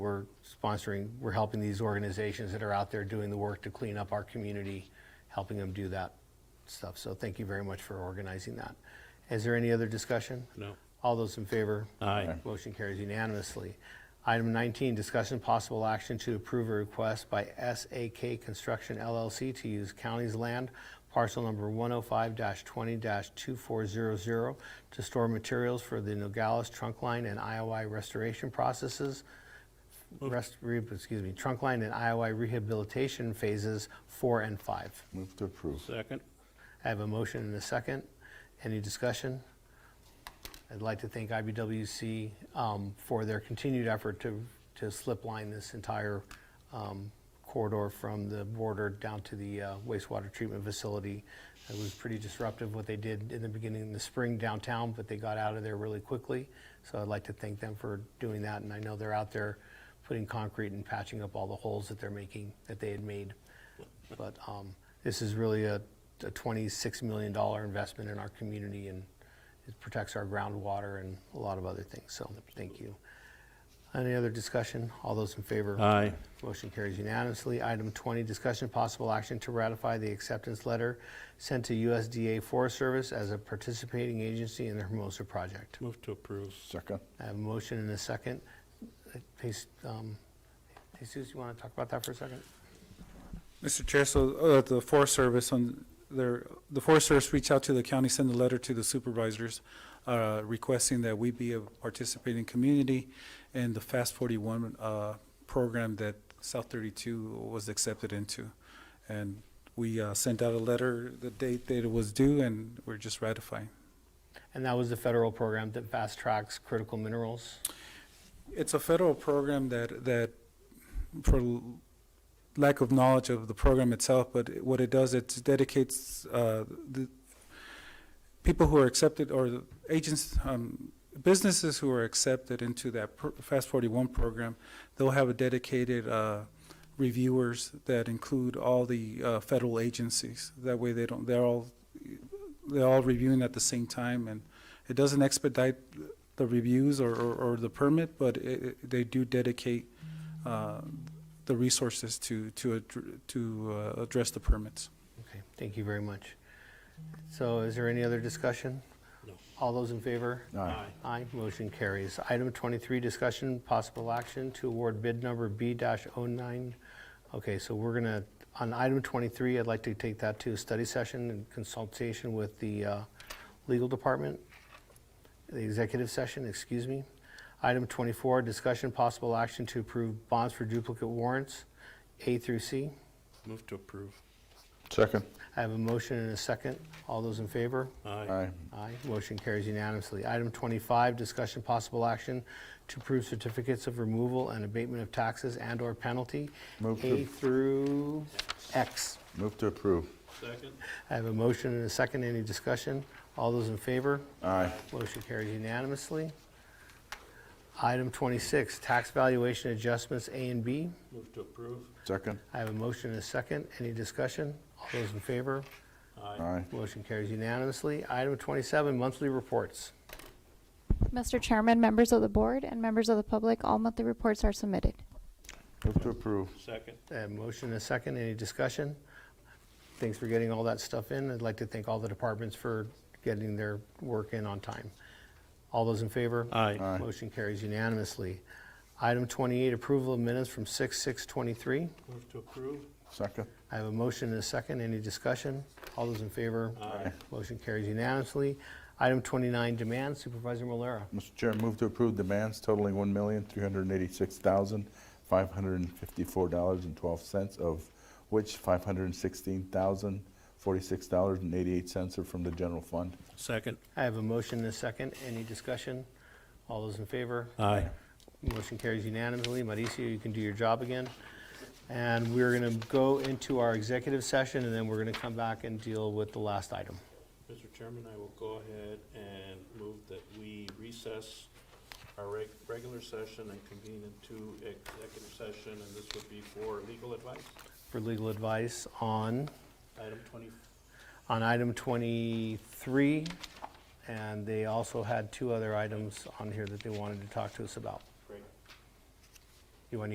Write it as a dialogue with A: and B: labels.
A: We're sponsoring, we're helping these organizations that are out there doing the work to clean up our community, helping them do that stuff. So thank you very much for organizing that. Is there any other discussion?
B: No.
A: All those in favor?
B: Aye.
A: Motion carries unanimously. Item 19, discussion possible action to approve a request by SAK Construction LLC to use county's land, parcel number 105-20-2400, to store materials for the Nogales trunk line and IOI restoration processes, rest, re- excuse me, trunk line and IOI rehabilitation phases four and five.
C: Move to approve.
B: Second?
A: I have a motion and a second. Any discussion? I'd like to thank IBWC um, for their continued effort to, to slip line this entire um, corridor from the border down to the uh, wastewater treatment facility. It was pretty disruptive what they did in the beginning in the spring downtown, but they got out of there really quickly. So I'd like to thank them for doing that, and I know they're out there putting concrete and patching up all the holes that they're making, that they had made. But um, this is really a a $26 million investment in our community, and it protects our groundwater and a lot of other things, so thank you. Any other discussion? All those in favor?
B: Aye.
A: Motion carries unanimously. Item 20, discussion possible action to ratify the acceptance letter sent to USDA Forest Service as a participating agency in the Hermosa project.
B: Move to approve.
C: Second.
A: I have a motion and a second. Uh, please, um, Jesus, you want to talk about that for a second?
D: Mr. Chair, so uh, the Forest Service on their, the Forest Service reached out to the county, sent a letter to the supervisors uh, requesting that we be a participating community in the Fast 41 uh, program that South 32 was accepted into. And we uh, sent out a letter the date that it was due, and we're just ratifying.
A: And that was the federal program that fast tracks critical minerals.
D: It's a federal program that, that, for l- lack of knowledge of the program itself, but it- what it does, it dedicates, uh, the people who are accepted, or the agents, um, businesses who are accepted into that pr- Fast Forty-One program, they'll have a dedicated, uh, reviewers that include all the, uh, federal agencies. That way they don't, they're all, they're all reviewing at the same time, and it doesn't expedite the reviews or, or, or the permit, but it, it- they do dedicate, uh, the resources to, to, addr- to, uh, address the permits.
A: Okay, thank you very much. So is there any other discussion?
B: No.
A: All those in favor?
C: Aye.
A: Aye, motion carries. Item 23, discussion, possible action to award bid number B-09. Okay, so we're going to, on item 23, I'd like to take that to a study session and consultation with the uh, legal department, the executive session, excuse me. Item 24, discussion, possible action to approve bonds for duplicate warrants, A through C.
B: Move to approve.
C: Second.
A: I have a motion and a second. All those in favor?
B: Aye.
C: Aye.
A: Aye. Motion carries unanimously. Item 25, discussion possible action to approve certificates of removal and abatement of taxes and/or penalty,
C: Move to-
A: A through X.
C: Move to approve.
B: Second?
A: I have a motion and a second. Any discussion? All those in favor?
C: Aye.
A: Motion carries unanimously. Item 26, tax valuation adjustments, A and B.
B: Move to approve.
C: Second.
A: I have a motion and a second. Any discussion? All those in favor?
C: Aye.
A: Motion carries unanimously. Item 27, monthly reports.
E: Mr. Chairman, members of the board, and members of the public, all monthly reports are submitted.
C: Move to approve.
B: Second?
A: A motion and a second, any discussion? Thanks for getting all that stuff in. I'd like to thank all the departments for getting their work in on time. All those in favor?
B: Aye.
C: Aye.
A: Motion carries unanimously. Item 28, approval of minutes from 6:623.
B: Move to approve.
C: Second.
A: I have a motion and a second, any discussion? All those in favor?
B: Aye.
A: Motion carries unanimously. Item 29, demand Supervisor Malera.
C: Mr. Chair, move to approve demands totaling one million, three hundred and eighty-six thousand, five hundred and fifty-four dollars and twelve cents, of which five hundred and sixteen thousand, forty-six dollars and eighty-eight cents are from the general fund.
B: Second?
A: I have a motion and a second, any discussion? All those in favor?
B: Aye.
A: Motion carries unanimously. Mauricio, you can do your job again. And we're going to go into our executive session, and then we're going to come back and deal with the last item.
B: Mr. Chairman, I will go ahead and move that we recess our reg- regular session and convene into executive session, and this would be for legal advice.
A: For legal advice on,
B: Item twenty,
A: on item 23, and they also had two other items on here that they wanted to talk to us about.